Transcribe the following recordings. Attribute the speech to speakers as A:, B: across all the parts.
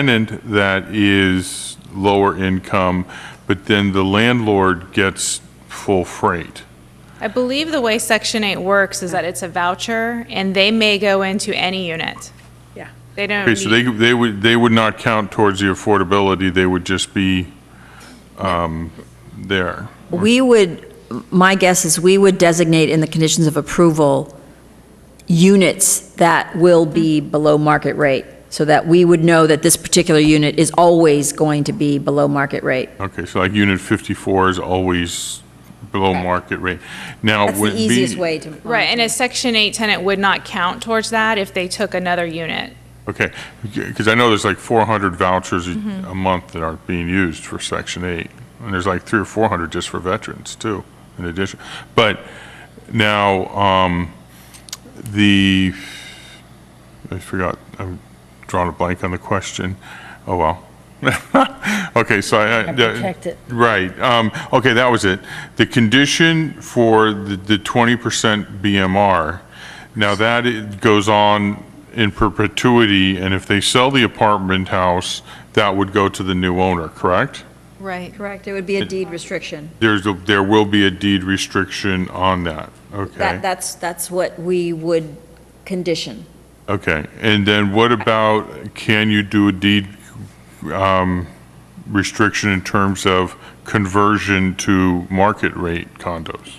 A: tenant that is lower income, but then the landlord gets full freight.
B: I believe the way Section 8 works is that it's a voucher, and they may go into any unit.
C: Yeah.
B: They don't
A: Okay, so they,
B: need,
A: they would, they would not count towards the affordability, they would just be, um, there.
D: We would, my guess is we would designate in the conditions of approval units that will be below market rate, so that we would know that this particular unit is always going to be below market rate.
A: Okay, so like unit 54 is always below market rate. Now,
D: That's
A: would
D: the
A: it be-
D: easiest way to.
B: right, and a Section 8 tenant would not count towards that if they took another unit.
A: Okay, because I know there's like 400 vouchers a
C: Mm-hmm.
A: a month that aren't being used for Section 8, and there's like three or 400 just for veterans, too, in addition. But now, um, the, I forgot, I'm drawing a blank on the question, oh well. Okay, so I... I-
C: protect it.
A: Right, um, okay, that was it. The condition for the the 20% BMR, now that it goes on in perpetuity, and if they sell the apartment house, that would go to the new owner, correct?
D: Right. Correct, it would be a deed restriction.
A: There's, a- there will be a deed restriction on that, okay?
D: That, that's, that's what we would condition.
A: Okay, and then what about, can you do a deed um, restriction in terms of conversion to market rate condos?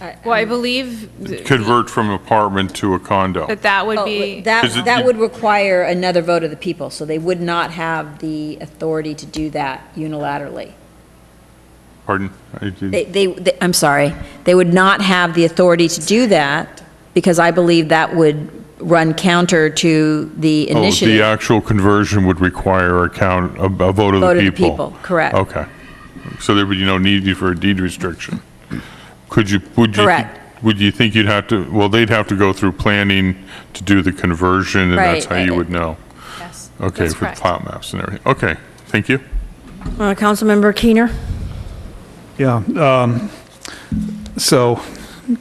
D: I-
B: Well, I believe th-
A: Convert from apartment to a condo?
B: that that would
D: Oh,
A: Is
B: be,
A: it-
D: That, that would require another vote of the people, so they would not have the authority to do that unilaterally.
A: Pardon? I did-
D: They, they, they- I'm sorry, they would not have the authority to do that, because I believe that would run counter to the
A: Oh, the
D: initiative.
A: actual conversion would require a count, a a vote of the people?
D: Vote of the people, correct.
A: Okay. So there would be no need for a deed restriction? Could you, would you? thi-
D: Correct.
A: Would you think you'd have to, well, they'd have to go through planning to do the conversion, and that's how
D: Right.
A: you would know?
B: yes,
A: Okay,
B: that's
A: for
B: correct.
A: plot maps and everything. Okay, thank you.
C: Uh, Councilmember Keener?
E: Yeah, um, so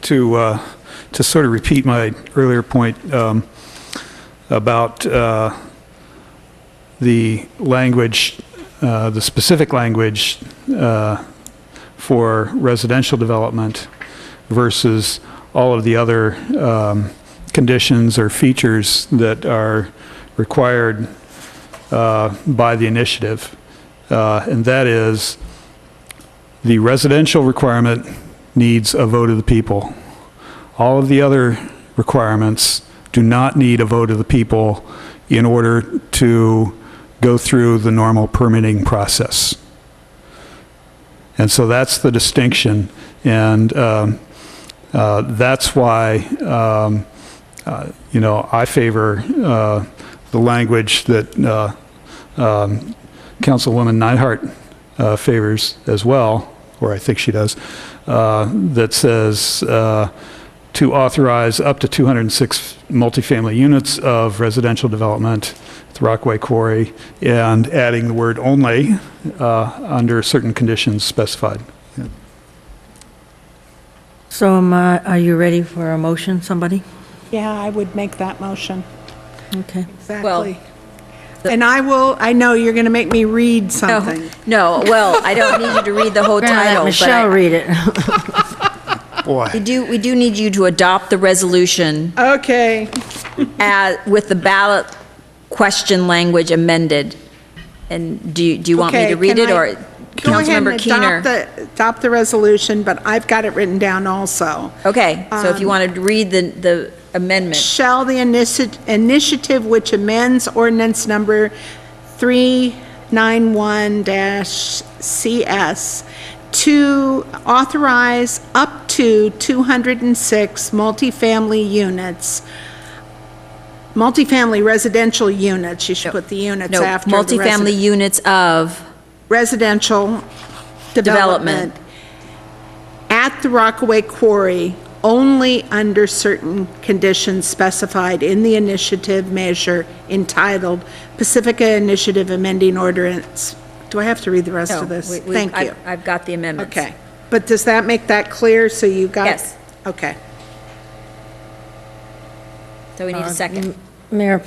E: to, uh, to sort of repeat my earlier point um, about uh, the language, uh, the specific language uh, for residential development versus all of the other um, conditions or features that are required uh, by the initiative. Uh, And that is, the residential requirement needs a vote of the people. All of the other requirements do not need a vote of the people in order to go through the normal permitting process. And so that's the distinction, and um, uh, that's why, um, uh, you know, I favor uh, the language that uh, um, Councilwoman Neinhardt uh, favors as well, or I think she does, uh, that says uh, to authorize up to 206 multifamily units of residential development at the Rockaway Quarry, and adding the word only uh, under certain conditions specified.
C: So am I- are you ready for a motion, somebody?
F: Yeah, I would make that motion.
C: Okay.
F: Exactly. And I will, I know you're going to make me
D: Oh.
F: read something.
D: No, well, I don't need you to read the whole
C: We're gonna let
D: title, but
C: Michelle
D: I-
C: read it.
D: we do, we do need you to adopt the resolution
F: Okay,
D: as, with the ballot question language amended. And do you, do you want me
F: Okay,
D: to read it,
F: can I-
D: or
F: go ahead and
D: Councilmember
F: adopt
D: Keener?
F: the, adopt the resolution, but I've got it written down also.
D: Okay, so if you
F: um,
D: want to read the, the amendment.
F: Shall the initi- initiative which amends ordinance number 391-CS to authorize up to 206 multifamily units, multifamily residential units, you should put the units
D: No,
F: after. the
D: multifamily
F: resi-
D: units of,
F: Residential development at the Rockaway Quarry only under certain conditions specified in the initiative measure entitled Pacifica Initiative Amending Ordinance. Do I have to read the rest
D: No,
F: of this?
D: we- we-
F: Thank
D: I-
F: you.
D: I've got the amendments.
F: Okay. But does that make that clear? So you got?
D: Yes.
F: Okay.
D: so we need a second.
C: Mayor